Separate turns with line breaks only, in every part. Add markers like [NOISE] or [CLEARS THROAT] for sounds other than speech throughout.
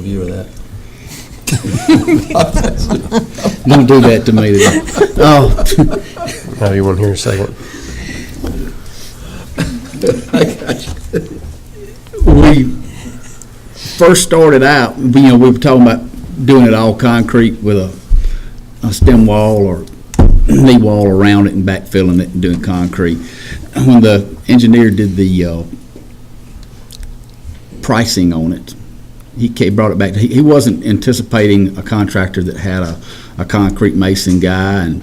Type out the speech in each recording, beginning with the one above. view of that.
Don't do that to me today. [LAUGHS] Oh,
[LAUGHS] Now you want to hear a second?
[LAUGHS] we first started out, you know, we were talking about doing it all concrete with a, a stem wall or knee wall around it and backfilling it and doing concrete. When the engineer did the, uh, pricing on it, he ca- brought it back, to- he, he wasn't anticipating a contractor that had a, a concrete mason guy and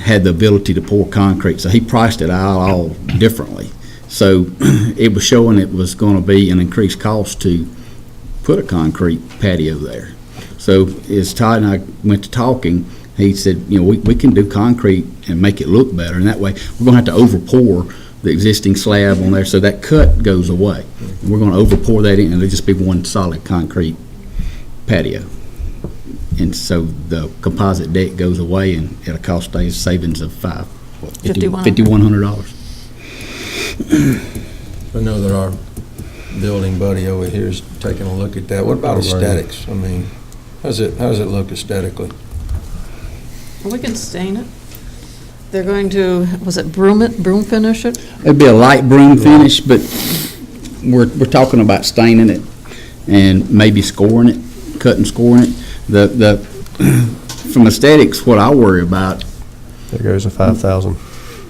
had the ability to pour concrete, so he priced it out all differently. So [CLEARS THROAT] it was showing it was going to be an increased cost to put a concrete patio there. So as Todd and I went to talking, he said, you know, we, we can do concrete and make it look better, and that way, we're going to have to overpour the existing slab on there, so that cut goes away. We're going to overpour that in, and it'll just be one solid concrete patio. And so the composite deck goes away, and it'll cost a savings of five, what,
$5,100.
fifty-one hundred dollars.
I know that our building buddy over here is taking a look at that. What about aesthetics? I mean, how's it, how's it look aesthetically?
We can stain it. They're going to, was it broom it, broom finish it?
It'd be a light broom finish, but we're, we're talking about staining it and maybe scoring it, cutting, scoring it. The, the, [CLEARS THROAT] from aesthetics, what I worry about.
There goes a five thousand.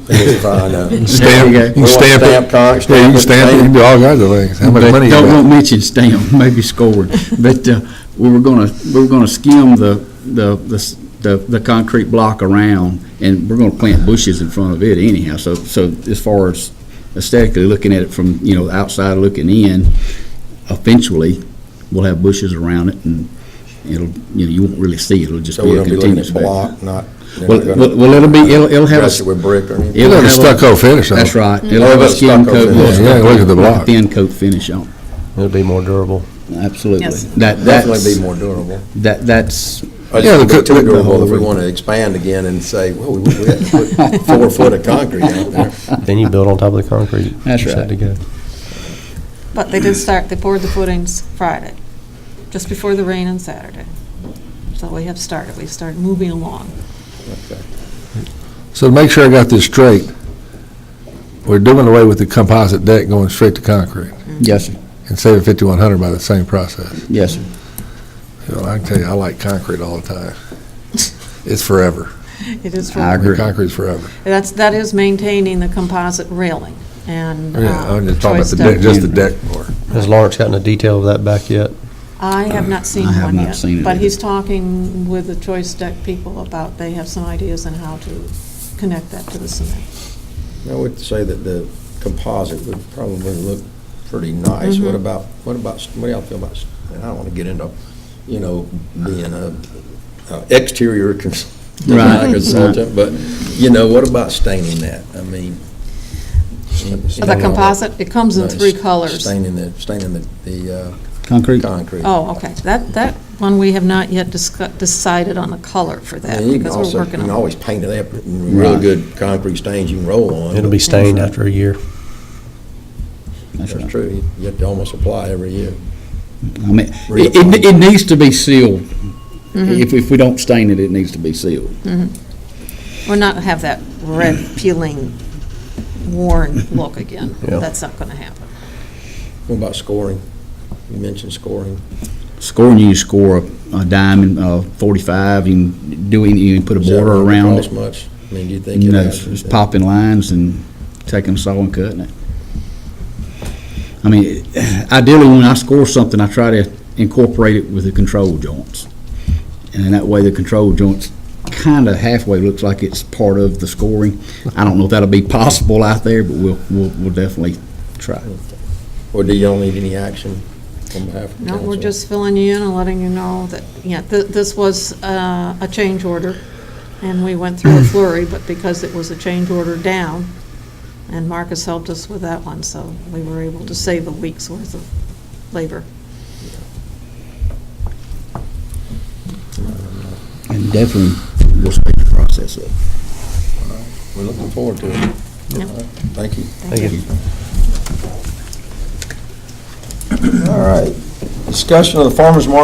uh,
Stamp,
You can stamp it. Yeah, you can stamp it, you can do all kinds of things. How much money you
Don't,
got?
won't mention stamp, [LAUGHS] maybe scored, but, uh, we were gonna, we were gonna skim the, the, the s- the, the concrete block around, and we're gonna plant bushes in front of it anyhow, so, so as far as aesthetically looking at it from, you know, the outside looking in, eventually, we'll have bushes around it, and it'll, you know, you won't really see it, it'll just
So
be
we're
a
gonna be looking
continuous.
at
back-
block, not, they're
Well,
not
well,
gonna
well, it'll be, it'll, it'll have a.
dress it with brick or anything?
it'll
You'll have a
have a-
stucco finish on it.
That's right, it'll
It'll
have a
have a
skin
stucco
coat.
finish.
little
Yeah, look at the
stucco,
block.
Thin coat finish on it.
It'll be more durable.
Absolutely.
Yes.
That,
Definitely
that's,
be more durable.
that, that's,
I
Yeah,
just
the
think it's
co-
too
the-
durable if we want to expand again and say, well, we we had
[LAUGHS]
to put four foot of concrete out there.
Then you build on top of the concrete.
That's
You're
right.
Set to go.
But they did start, they poured the footings Friday, just before the rain on Saturday. So we have started, we started moving along.
So to make sure I got this straight, we're doing away with the composite deck, going straight to concrete,
yes, sir.
and saving fifty-one hundred by the same process.
yes, sir.
Well, I can tell you, I like concrete all the time. It's forever.
It is,
I
for-
agree.
Concrete's forever.
that's, that is maintaining the composite railing and.
Yeah,
uh,
I'm just talking about
choice
the deck,
stone.
just the deck part.
Has Lawrence gotten the detail of that back yet?
I have not seen
I have
one
not
yet,
seen it
but
either.
he's talking with the choice deck people about, they have some ideas on how to connect that to the cement.
I would say that the composite would probably look pretty nice.
Mm-hmm.
What about, what about, what do y'all feel about, and I don't want to get into, you know, being a a exterior cons- [LAUGHS]
Right,
design
right.
consultant, but, you know, what about staining that? I mean.
For The composite, it comes in three colors.
Staining the, staining the, the uh,
Concrete.
concrete.
Oh, okay, that, that one, we have not yet discu- decided on the color for that,
And you can
because
also,
we're
you
working
can
on it.
always paint it up, really
Right.
good concrete stains you can roll on.
It'll
but-
be stained after a year.
That's
That's
right.
true, You- you have to almost apply every year.
I mean, it, it- it needs to be sealed. If, if we don't stain it, it needs to be sealed.
We're not gonna have that red peeling worn look again.
Yeah.
That's not gonna happen.
What about scoring? You mentioned scoring.
Scoring, you score a a diamond, uh, forty-five, you can do any, you can put a
Does that
border
really
around
cost
it.
much? I mean, do you think?
You
it
know,
has-
just popping lines and taking a saw and cutting it. I mean, [SIGHS] ideally, when I score something, I try to incorporate it with the control joints. And that way, the control joints kind of halfway looks like it's part of the scoring. I don't know if that'll be possible out there, but we'll, we'll, we'll definitely try.
Or do y'all need any action on behalf of
No,
council?
we're just filling you in and letting you know that, yeah, th- this was uh, a change order, and we went through a flurry, but because it was a change order down, and Marcus helped us with that one, so we were able to save a week's worth of labor.
And definitely, we'll speed the process up.
We're looking forward to it.
Yep.
All right, Thank you.
Thank you.
All right. Discussion of the farmer's market